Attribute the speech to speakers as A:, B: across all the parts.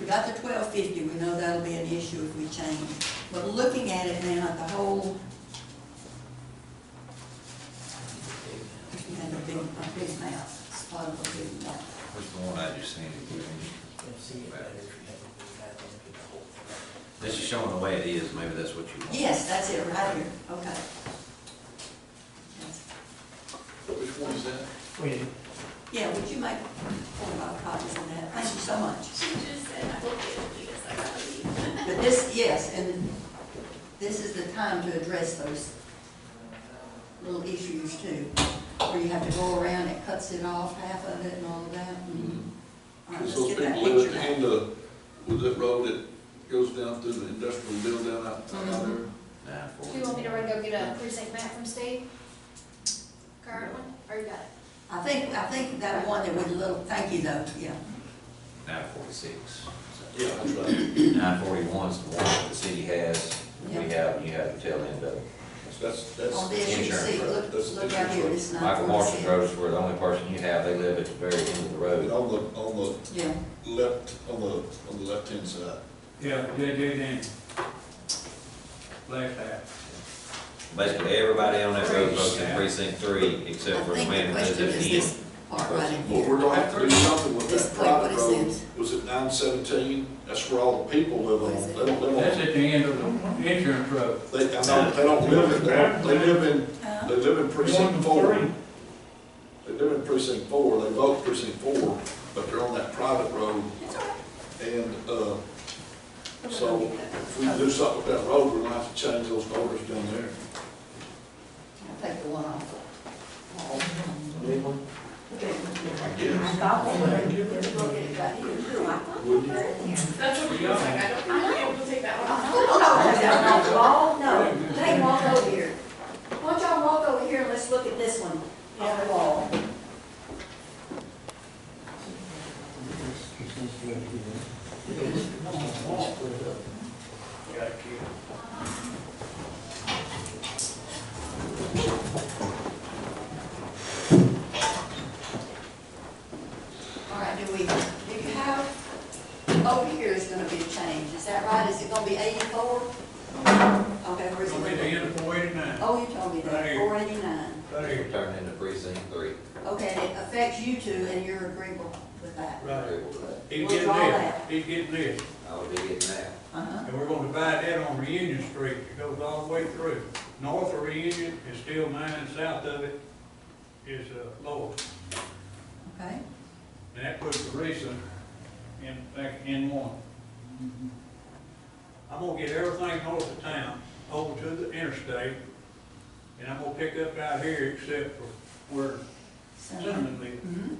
A: We got the twelve fifty, we know that'll be an issue if we change. But looking at it now, at the whole, if you had a big, a big map, it's part of a big map.
B: What's the one I just seen? This is showing the way it is, maybe that's what you want.
A: Yes, that's it, right here, okay. Yes.
C: Which one is that?
D: Wait,
A: Yeah, would you make four or five copies of that? Thank you so much.
E: She just said, I will get it, because I gotta leave.
A: But this, yes, and this is the time to address those little issues too, where you have to go around, it cuts it off, half of it and all of that. and- All right, Mm-hmm.
C: It's
A: let's
C: those
A: get
C: people
A: that
C: live
A: picture
C: at the
A: back.
C: end of, was that road that goes down through the industrial building down out, out
A: Mm-hmm.
C: there?
B: Nine
E: Do you
B: forty.
E: want me to run, go get a precinct map from Steve? Current one, or you got it?
A: I think, I think that one that with a little, thank you though, yeah.
B: Nine forty-six.
C: Yeah, that's right.
B: Nine forty-one's the one that the city has, we
A: Yeah.
B: have, and you have to tell them that.
C: That's,
A: On
C: that's,
A: this, you can see, look,
C: That's the
A: look out here,
C: insurance.
A: this nine
B: Michael
A: forty-six.
B: Marshall's roads were the only person you have, they live at the very end of the
C: and
B: road.
C: on the, on
A: Yeah,
C: the left, on the, on the left-hand side.
F: Yeah, they do then. Left half.
B: Basically, everybody on that road goes to
F: Yeah.
B: precinct three,
A: I
B: except for the
A: think the
B: man that lives
A: question
B: at
A: is
B: the
A: this
B: end.
A: part right in
C: Well,
A: here.
C: we're gonna have to do something with
A: This
C: that
A: plate, what
C: private
A: is
C: road.
A: this?
C: Was it nine seventeen? That's where all the people live
A: What
C: on.
A: is it?
C: They don't
F: That's
C: live on,
F: at the end of the insurance road.
C: they, I know, they don't live in, there. they live in,
A: Uh,
C: they live in precinct four. They live in precinct four, they vote precinct four, but they're on that private road.
A: It's all right.
C: And, uh,
A: We're gonna
C: So-
A: get that.
C: if we do something with that road, we're gonna have to change those orders down there.
A: I'll take the one off. Okay.
C: I guess.
A: Stop over there. Look at it right here.
C: Wouldn't you?
G: That's what we
F: Yeah.
G: was like, I don't, I'm not able to take that one off.
A: No, no, is that not the wall? No, they walk over here. Why don't y'all walk over here and let's look at this one on the wall? All right, do we, do you have, over here is gonna be a change, is that right? Is it gonna be eighty-four? Okay, where's
F: It's
A: it?
F: gonna be the end of four eighty-nine,
A: Oh, you told me
F: Right
A: that,
F: here.
A: four eighty-nine.
F: right here.
B: Turned into precinct three.
A: Okay, and it affects you two and you're agreeable with that?
F: Right. He's
A: We'll
F: getting
A: draw
F: this,
A: that.
F: he's getting this,
B: I would be getting that.
A: Uh-huh.
F: and we're gonna divide that on Reunion Street, it goes all the way through. North of Reunion is still mine, south of it is, uh, Lowell.
A: Okay,
F: And that puts Teresa in, back in one. I'm gonna get everything north of town over to the interstate, and I'm gonna pick up out here except for where
A: so,
F: Cinnamon lives.
A: mhm,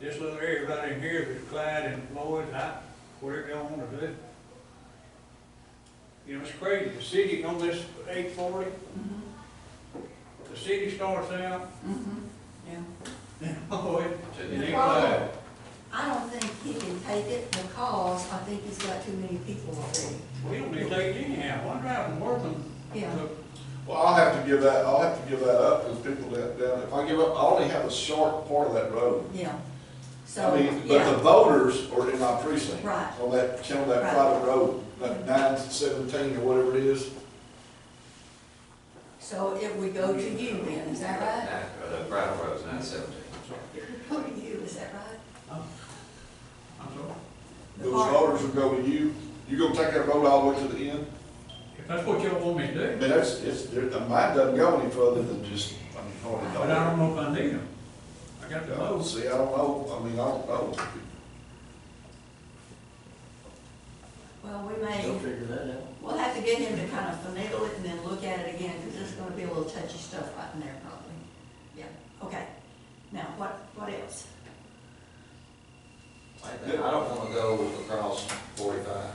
F: This little area right in here, with Clyde and Floyd, I, whatever y'all wanna do. You know, it's crazy, the city on this eight forty,
A: mhm,
F: the city starts out, oh,
A: mhm, yeah.
F: and Floyd, and then
A: The
F: Clyde.
A: problem, I don't think he can take it because I think he's got too many people already.
F: We don't need to take it anyhow, one driving Worthing,
A: Yeah,
F: took
C: Well, I'll have to give that, I'll have to give that up, because people down, down, if I give up, I only have a short part of that road.
A: yeah. So,
C: I mean, but the
A: yeah,
C: voters are in my precinct.
A: Right.
C: On that, on that
A: Right.
C: private road, like nine seventeen or whatever it is.
A: so if we go to you then, is that right?
B: Nine- uh, The private road's nine seventeen.
A: Go to you, is that right?
F: I'm sorry.
C: Those voters will go to you, you gonna take that road all the way to the end?
F: If that's what y'all want me
C: I
F: to do,
C: mean, that's, it's, there- mine doesn't go any further than just, I mean, hardly.
F: but I don't know if I need them. I got the
C: No,
F: votes.
C: see, I don't know, I mean, I don't know.
A: Well, we may.
D: I'll figure that out.
A: We'll have to get him to kind of finagle it and then look at it again, because there's gonna be a little touchy stuff right in there probably. Yeah, okay. Now, what, what else?
B: I think- I don't wanna go across forty-five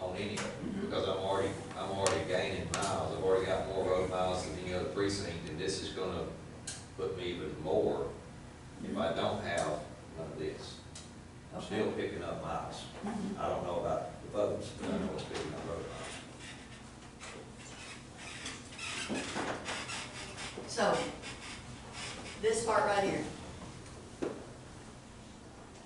B: uh, on any of them, because I'm already, I'm already gaining miles, I've already got more road miles than any other precinct, and this is gonna put me even more if I don't have none of this. I'm still picking up miles,
A: Mhm.
B: I don't know about the votes, but I know it's picking up road miles.
A: So, this part right here,